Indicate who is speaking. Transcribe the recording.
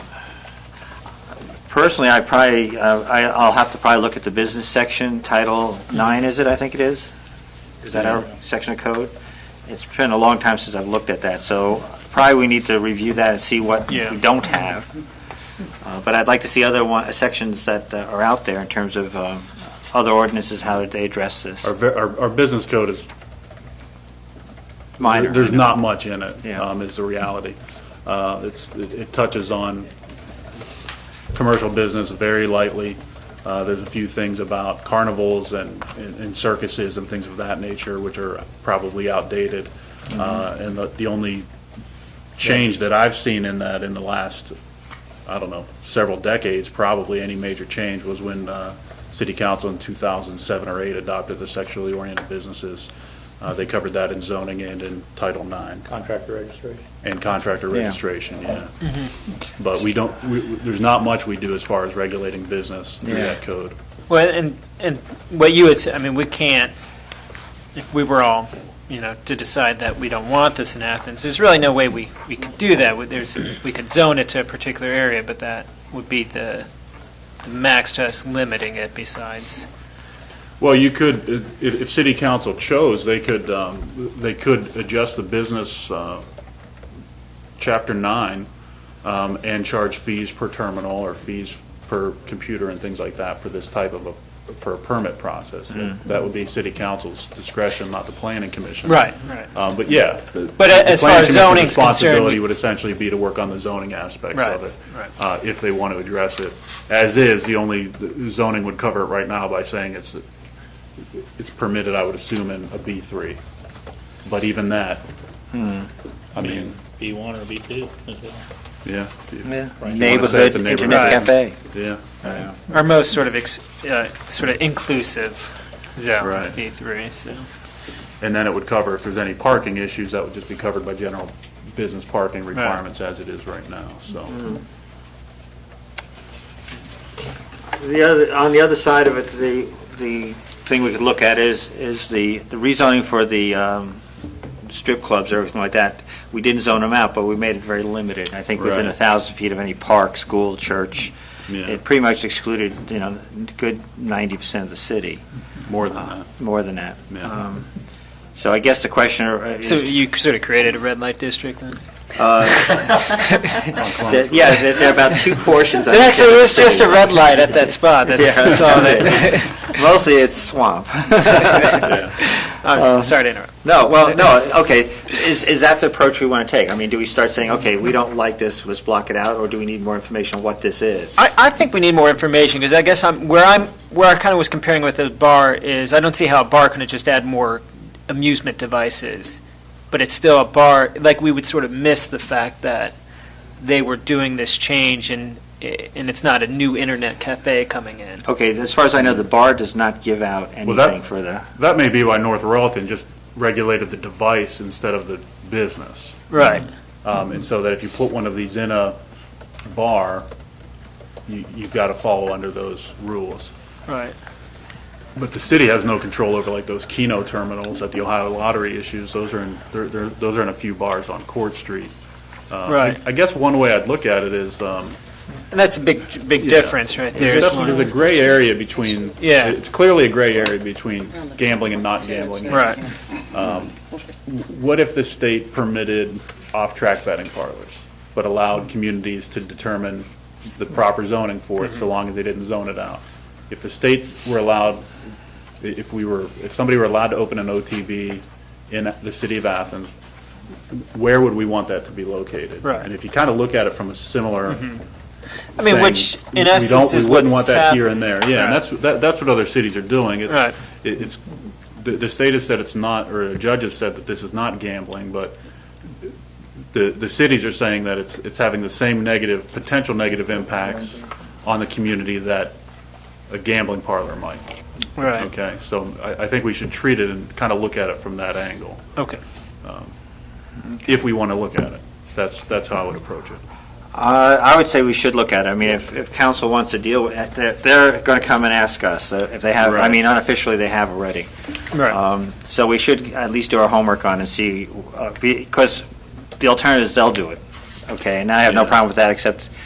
Speaker 1: Personally, I probably, uh, I- I'll have to probably look at the business section, Title 9, is it, I think it is? Is that our section of code? It's been a long time since I've looked at that, so probably we need to review that and see what we
Speaker 2: Yeah.
Speaker 1: don't have. Uh, But I'd like to see other one- sections that uh, are out there in terms of um, other ordinances, how they address this.
Speaker 2: Our, ver- our, our business code is,
Speaker 1: Minor.
Speaker 2: there's not much in it,
Speaker 1: Yeah.
Speaker 2: um, is the reality. Uh, it's, it it touches on commercial business very lightly. Uh, there's a few things about carnivals and, and and circuses and things of that nature, which are probably outdated.
Speaker 1: Mm-hmm.
Speaker 2: Uh, and the, the only change that I've seen in that in the last, I don't know, several decades, probably any major change was when uh, City Council in 2007 or 8 adopted the sexually oriented businesses. Uh, They covered that in zoning and in Title IX
Speaker 3: Contractor registration. Mm-hmm.
Speaker 2: and contractor
Speaker 1: Yeah.
Speaker 2: registration, yeah. But we don't, we- we- there's not much we do as far as regulating business through
Speaker 1: Yeah.
Speaker 2: that code.
Speaker 4: Well, and, and what you would say, I mean, we can't, if we were all, you know, to decide that we don't want this in Athens, there's really no way we, we could do that. We- There's, we could zone it to a particular area, but that would be the, the max to us limiting it besides.
Speaker 2: Well, you could, if, if city council chose, they could, um, they could adjust the business, uh, chapter nine, um, and charge fees per terminal or fees per computer and things like that for this type of a, for a permit process.
Speaker 4: Mm-hmm.
Speaker 2: That would be city council's discretion, not the planning commission.
Speaker 4: Right.
Speaker 2: Um, but yeah. the-
Speaker 4: But
Speaker 2: the
Speaker 4: as far
Speaker 2: planning
Speaker 4: as
Speaker 2: commission's
Speaker 4: zoning's concerned,
Speaker 2: Responsibility
Speaker 4: we-
Speaker 2: would essentially be to work on the zoning aspects
Speaker 4: Right,
Speaker 2: of it.
Speaker 4: right.
Speaker 2: Uh, if they want to address it. As is, the only, the zoning would cover it right now by saying it's, it's permitted, I would assume, in a B three. But even that, I mean,
Speaker 3: B1 or B2 as well.
Speaker 2: yeah. if you-
Speaker 1: Yeah.
Speaker 2: if you wanna say it's a
Speaker 1: Neighborhood internet cafe.
Speaker 2: neighborhood, Yeah.
Speaker 4: Our most sort of, ex- uh, sort of inclusive zone,
Speaker 2: Right.
Speaker 4: B three, so.
Speaker 2: And then it would cover, if there's any parking issues, that would just be covered by general business parking requirements as it is right now, so.
Speaker 1: The other, on the other side of it, the, the thing we could look at is, is the the rezoning for the um, strip clubs, everything like that. We didn't zone them out, but we made it very limited. I think within a
Speaker 2: Right.
Speaker 1: thousand feet of any park, school, church,
Speaker 2: Yeah.
Speaker 1: it pretty much excluded, you know, good ninety percent of the city,
Speaker 2: More than that.
Speaker 1: more than that.
Speaker 2: Yeah.
Speaker 1: Um, So I guess the question uh, is.
Speaker 4: So you sort of created a red light district then?
Speaker 1: that- Yeah, that there are about two portions. I
Speaker 4: It
Speaker 1: think, of
Speaker 4: actually
Speaker 1: the
Speaker 4: is just
Speaker 1: city.
Speaker 4: a red light at that spot, that's,
Speaker 1: Yeah.
Speaker 4: that's all that.
Speaker 1: Mostly it's swamp.
Speaker 4: I'm s- sorry to interrupt.
Speaker 1: No, well, no, okay, is, is that the approach we want to take? I mean, do we start saying, okay, we don't like this, let's block it out, or do we need more information on what this is?
Speaker 4: I, I think we need more information because I guess I'm where I'm where I kind of was comparing with the bar is I don't see how a bar can just add more amusement devices, but it's still a bar. Like we would sort of miss the fact that they were doing this change and eh, and it's not a new internet cafe coming in.
Speaker 1: Okay, as far as I know, the bar does not give out
Speaker 2: Well, that-
Speaker 1: anything for the,
Speaker 2: That may be why North Royalton just regulated the device instead of the business.
Speaker 4: Right.
Speaker 2: Um, And so that if you put one of these in a bar, you, you've got to follow under those rules.
Speaker 4: Right.
Speaker 2: But the city has no control over like those Keno terminals that the Ohio Lottery issues. Those are in, they're, they're, those are in a few bars on Court Street. Uh,
Speaker 4: Right.
Speaker 2: I guess one way I'd look at it is, um,
Speaker 4: And that's a big big difference right there.
Speaker 2: There's
Speaker 4: is
Speaker 2: definitely
Speaker 4: one.
Speaker 2: there's a gray area between.
Speaker 4: Yeah.
Speaker 2: It's clearly a gray area between gambling and not gambling.
Speaker 4: Right.
Speaker 2: What if the state permitted off-track betting parlors, but allowed communities to determine the proper zoning for it, so long as they didn't zone it out? If the state were allowed, i- if we were, if somebody were allowed to open an OTB in the city of Athens, where would we want that to be located?
Speaker 4: Right.
Speaker 2: And if you kind of look at it from a similar
Speaker 4: I mean,
Speaker 2: saying,
Speaker 4: which
Speaker 2: we
Speaker 4: in
Speaker 2: don't-
Speaker 4: essence is
Speaker 2: We wouldn't want
Speaker 4: what's
Speaker 2: that here
Speaker 4: hap-
Speaker 2: and there, yeah, and
Speaker 4: Right.
Speaker 2: that's, that- that's what other cities are doing. It's-
Speaker 4: Right.
Speaker 2: it- It's, the, the state has said it's not, or a judge has said that this is not gambling, but the, the cities are saying that it's, it's having the same negative, potential negative impacts on the community that a gambling parlor might.
Speaker 4: Right.
Speaker 2: Okay, so I, I think we should treat it and kind of look at it from that angle,
Speaker 4: Okay.
Speaker 2: if we want to look at it. That's, that's how I would approach it.
Speaker 1: Uh, I would say we should look at it. I mean, if, if council wants to deal with, it, they're, they're going to come and ask us uh, if they have, I
Speaker 2: Right.
Speaker 1: mean, unofficially, they have already.
Speaker 4: Right.
Speaker 1: Um, So we should at least do our homework on and uh, see, because the alternative is they'll do it, okay? And I have no
Speaker 2: Yeah.
Speaker 1: problem with that, except